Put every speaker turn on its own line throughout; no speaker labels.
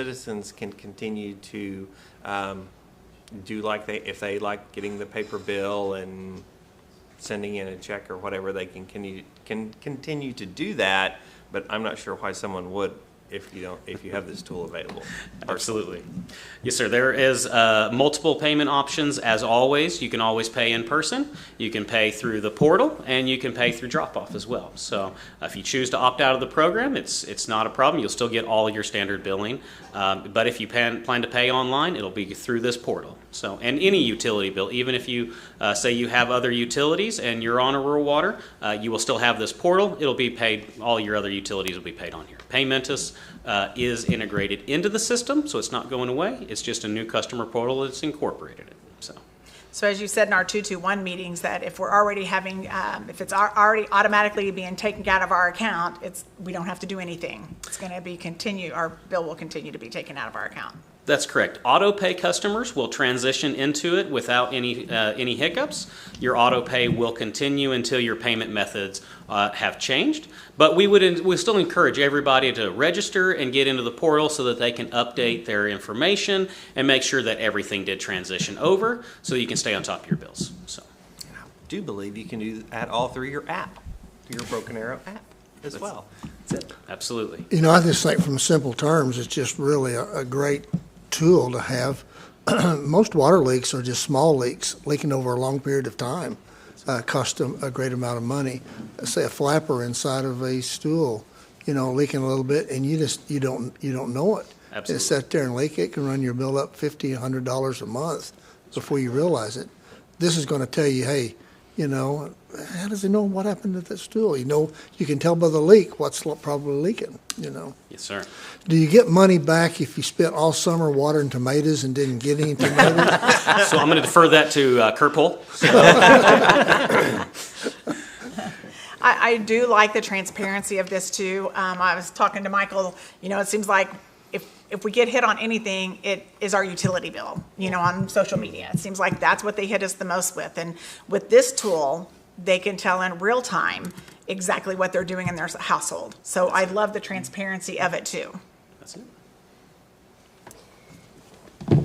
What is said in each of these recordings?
citizens can continue to um, do like they, if they like getting the paper bill and sending in a check or whatever, they can, can, can continue to do that, but I'm not sure why someone would if you don't, if you have this tool available.
Absolutely. Yes, sir. There is uh, multiple payment options as always. You can always pay in person, you can pay through the portal, and you can pay through drop off as well. So uh, if you choose to opt out of the program, it's, it's not a problem. You'll still get all your standard billing. Um, but if you plan, plan to pay online, it'll be through this portal. So, and any utility bill, even if you uh, say you have other utilities and you're on a rural water, uh, you will still have this portal. It'll be paid, all your other utilities will be paid on here. Paymentus uh, is integrated into the system, so it's not going away. It's just a new customer portal that's incorporated it. So,
So as you said in our 221 meetings, that if we're already having, um, if it's al- already automatically being taken out of our account, it's, we don't have to do anything. It's going to be continue, our bill will continue to be taken out of our account.
that's correct. Auto pay customers will transition into it without any uh, any hiccups. Your auto pay will continue until your payment methods uh, have changed. But we would we still encourage everybody to register and get into the portal so that they can update their information and make sure that everything did transition over, so you can stay on top of your bills. So.
do believe you can do that all through your app, your Broken Arrow app as well.
Absolutely.
You know, I just think from simple terms, it's just really a, a great tool to have. Most water leaks are just small leaks leaking over a long period of time, uh, cost a, a great amount of money. Say a flapper inside of a stool, you know, leaking a little bit, and you just you don't you don't know it.
Absolutely.
It sat there and leak. It can run your bill up fifty, a hundred dollars a month before you realize it. This is going to tell you, hey, you know, how does he know what happened to that stool? You know, you can tell by the leak what's lo- probably leaking. You know.
Yes, sir.
Do you get money back if you spent all summer watering tomatoes and didn't get any tomatoes?
So I'm going to defer that to uh, Kurt Pohl.
I, I do like the transparency of this too. Um, I was talking to Michael, you know, it seems like if, if we get hit on anything, it is our utility bill, you know, on social media. It seems like that's what they hit us the most with. And with this tool, they can tell in real time exactly what they're doing in their household. So I love the transparency of it too.
That's it.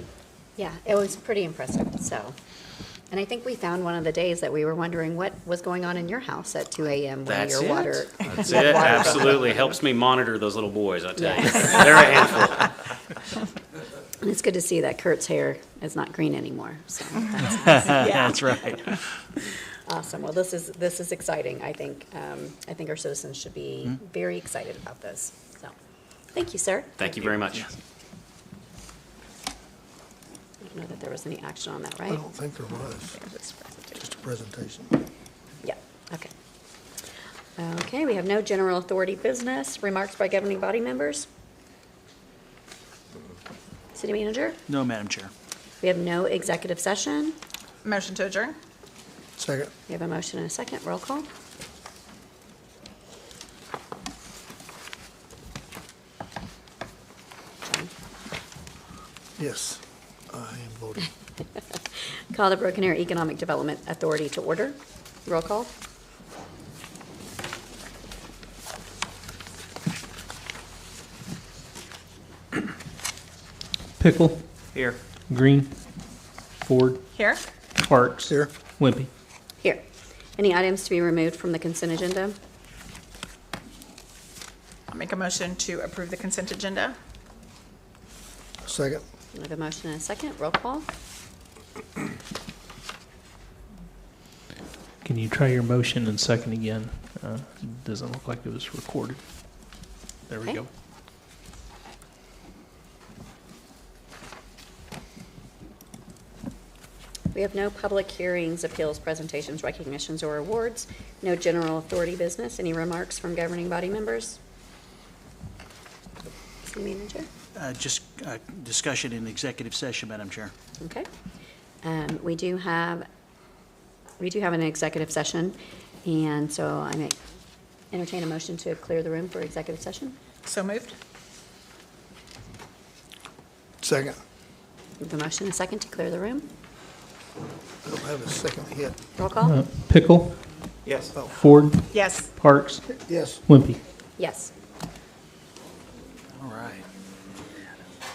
Yeah, it was pretty impressive, so. And I think we found one of the days that we were wondering what was going on in your house at two AM when
That's
your
it.
water.
That's it. Absolutely helps me monitor those little boys. I tell you,
Yes.
they're a handful.
And it's good to see that Kurt's hair is not green anymore, so that's
Yeah.
That's right.
awesome. Well, this is, this is exciting, I think. Um, I think our citizens should be very excited about this, so. Thank you, sir.
Thank you very much.
I don't know that there was any action on that,
I
right?
don't think there was, just a presentation.
Yeah, okay. Okay, we have no general authority business. Remarks by governing body members? City manager?
No, Madam Chair.
We have no executive session.
Motion to adjourn?
Second.
We have a motion and a second. Roll call. John.
Yes, I am voting.
Call the Broken Arrow Economic Development Authority to order. Roll call.
Pickle,
Here.
Green, Ford,
Here?
Parks.
Here.
Wimpy.
Here. Any items to be removed from the consent agenda?
I'll make a motion to approve the consent agenda?
Second.
We have a motion and a second. Roll call.
Can you try your motion and second again? Uh, Doesn't look like it was recorded. There we
Okay.
go.
We have no public hearings, appeals, presentations, recognitions, or awards, no general authority business. Any remarks from governing body members? City manager?
Uh, Just uh, discussion in executive session, Madam Chair.
Okay. Um, We do have, we do have an executive session, and so I may entertain a motion to clear the room for executive session.
So moved?
Second.
We have a motion, a second to clear the room.
I don't have a second hit.
Roll call?
Uh, Pickle,
Yes.
Oh,
Ford,
Yes.
Parks,
yes.
Wimpy.
Yes.